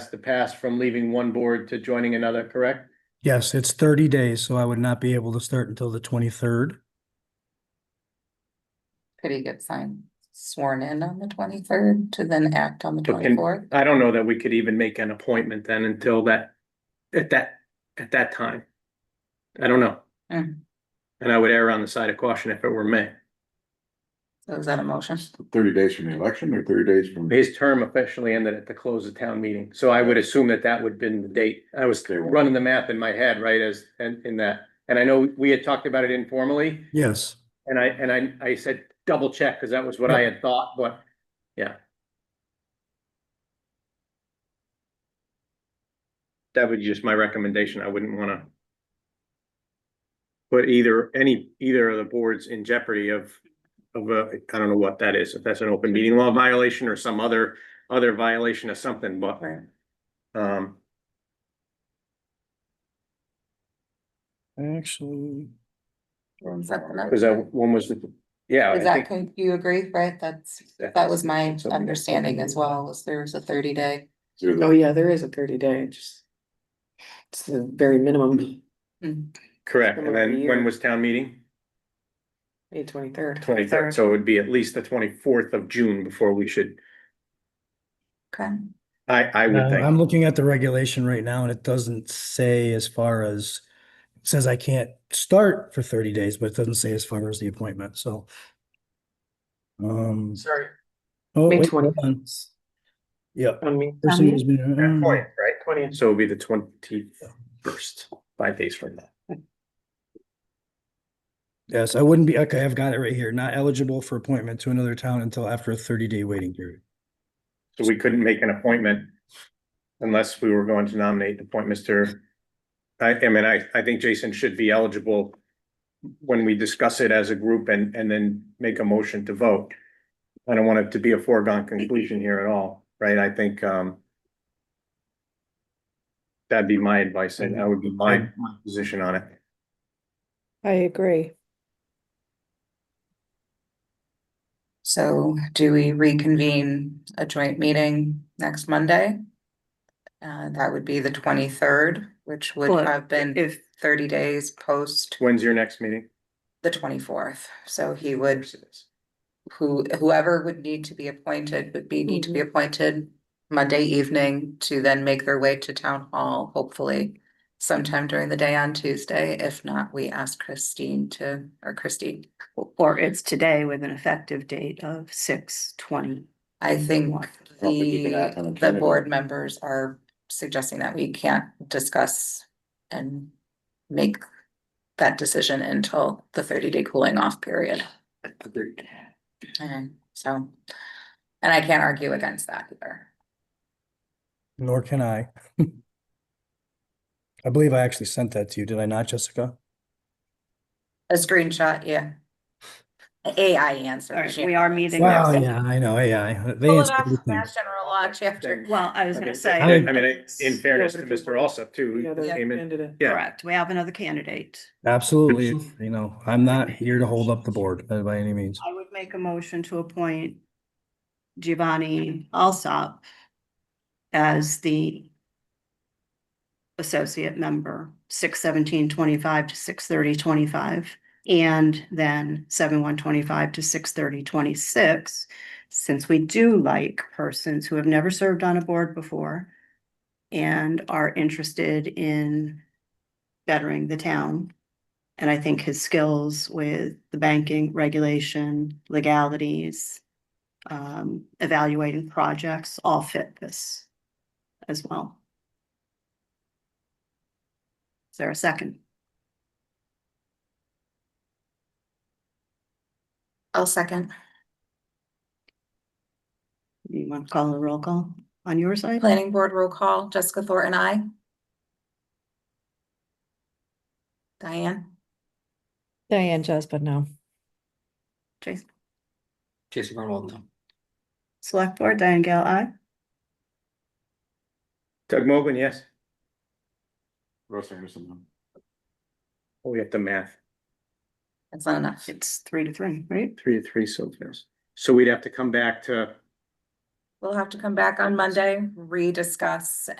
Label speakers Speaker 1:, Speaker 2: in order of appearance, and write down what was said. Speaker 1: has to pass from leaving one board to joining another, correct?
Speaker 2: Yes, it's thirty days, so I would not be able to start until the twenty-third.
Speaker 3: Could he get signed sworn in on the twenty-third to then act on the
Speaker 1: But can-
Speaker 3: twenty-fourth?
Speaker 1: I don't know that we could even make an appointment then until that, at that, at that time. I don't know.
Speaker 3: Mm.
Speaker 1: And I would err on the side of caution if it were me.
Speaker 3: So is that a motion?
Speaker 1: Uh,
Speaker 4: Thirty days from the election or thirty days from?
Speaker 1: His term officially ended at the close of town meeting, so I would assume that that would have been the date. I was
Speaker 4: They won't.
Speaker 1: running the math in my head, right, as, and in that. And I know we had talked about it informally,
Speaker 2: Yes,
Speaker 1: and I, and I, I said double check, because that was what I had thought, but yeah. That would be just my recommendation. I wouldn't want to put either, any, either of the boards in jeopardy of, of, a- I don't know what that is, if that's an open meeting law violation or some other, other violation of something, but,
Speaker 3: Right.
Speaker 1: um,
Speaker 2: actually,
Speaker 3: Is that
Speaker 4: uh,
Speaker 3: the
Speaker 1: because
Speaker 3: number?
Speaker 1: that one was, the yeah. I
Speaker 3: Is that,
Speaker 1: think-
Speaker 3: con- you agree, right? That's, that was my
Speaker 1: Something-
Speaker 3: understanding as well, was there was a thirty day.
Speaker 4: Through
Speaker 5: Oh,
Speaker 4: the,
Speaker 5: yeah, there is a thirty day, just. It's the very minimum,
Speaker 1: Correct. And
Speaker 5: Similar to
Speaker 1: then when
Speaker 5: yours.
Speaker 1: was town meeting?
Speaker 5: May twenty-third.
Speaker 1: Twenty-third, so it would be at least the twenty-fourth of June before we should,
Speaker 3: Okay,
Speaker 1: I, I
Speaker 2: uh,
Speaker 1: would
Speaker 2: I'm
Speaker 1: think.
Speaker 2: looking at the regulation right now and it doesn't say as far as, it says I can't start for thirty days, but it doesn't say as far as the appointment, so. Um,
Speaker 5: Sorry.
Speaker 2: oh,
Speaker 5: May
Speaker 2: wait,
Speaker 5: twentieth.
Speaker 2: hold on. yeah.
Speaker 5: On me,
Speaker 2: person who's been-
Speaker 1: That point, right?
Speaker 5: twentieth.
Speaker 1: So it would be the twenty-first, five days from now.
Speaker 2: Yes, I wouldn't be, okay, I've got it right here, not eligible for appointment to another town until after a thirty day waiting period.
Speaker 1: So we couldn't make an appointment unless we were going to nominate the appoint Mr. I, I mean, I, I think Jason should be eligible when we discuss it as a group and, and then make a motion to vote. I don't want it to be a foregone conclusion here at all, right? I think, um, that'd be my advice and that would be my, my position on it.
Speaker 5: I agree.
Speaker 3: so do we reconvene a joint meeting next Monday? Uh, that would be the twenty-third, which would
Speaker 5: Well,
Speaker 3: have been
Speaker 5: If,
Speaker 3: thirty days post
Speaker 1: When's your next meeting?
Speaker 3: the twenty-fourth, so he would. Who, whoever would need to be appointed would be, need to be appointed Monday evening to then make their way to town hall, hopefully. Sometime during the day on Tuesday, if not, we ask Christine to, or Christine,
Speaker 6: Or it's today with an effective date of six twenty.
Speaker 3: I think
Speaker 4: I don't think you can act on
Speaker 3: the,
Speaker 4: it
Speaker 3: the
Speaker 4: Saturday.
Speaker 3: board members are suggesting that we can't discuss. And make that decision until the thirty-day cooling off period.
Speaker 6: Agreed.
Speaker 3: And Mm-hmm. so, and I can't argue against that either.
Speaker 2: Nor can I. I believe I actually sent that to you, did I not, Jessica?
Speaker 3: A screenshot, yeah. A- AI answer.
Speaker 6: All right,
Speaker 3: yeah.
Speaker 6: we are meeting.
Speaker 2: Well,
Speaker 6: next-
Speaker 2: yeah, I know, AI. They
Speaker 3: Pull it
Speaker 2: answer
Speaker 3: off of
Speaker 2: everything.
Speaker 3: Mass General Law chapter.
Speaker 6: Well, I was
Speaker 1: Okay,
Speaker 6: gonna say.
Speaker 1: I
Speaker 2: I-
Speaker 1: mean, I- in fairness to Mr. Alsup too,
Speaker 5: yeah,
Speaker 1: who
Speaker 5: they
Speaker 1: came in,
Speaker 5: ended it.
Speaker 1: yeah.
Speaker 6: Correct, we have another candidate.
Speaker 2: Absolutely, you know, I'm not here to hold up the board uh, by any means.
Speaker 6: I would make a motion to appoint Giovanni Alsop as the associate member, six seventeen twenty-five to six thirty twenty-five, and then seven one twenty-five to six thirty twenty-six. Since we do like persons who have never served on a board before and are interested in bettering the town. And I think his skills with the banking regulation, legalities, um, evaluating projects all fit this as well. Is there a second?
Speaker 3: I'll second.
Speaker 6: You want to call a roll call on your side?
Speaker 3: Planning board roll call, Jessica Thornton, I. Diane,
Speaker 7: Diane Jasper, no.
Speaker 6: Jason,
Speaker 8: Jason Grunwald, no.
Speaker 6: select board, Diane Gale, aye.
Speaker 1: Doug Mogul, yes?
Speaker 4: Russ Anderson, no.
Speaker 1: Oh, we have to math.
Speaker 3: that's not enough.
Speaker 6: It's three to three, right?
Speaker 1: Three to three, so there's, so we'd have to come back to.
Speaker 3: We'll have to come back on Monday, rediscuss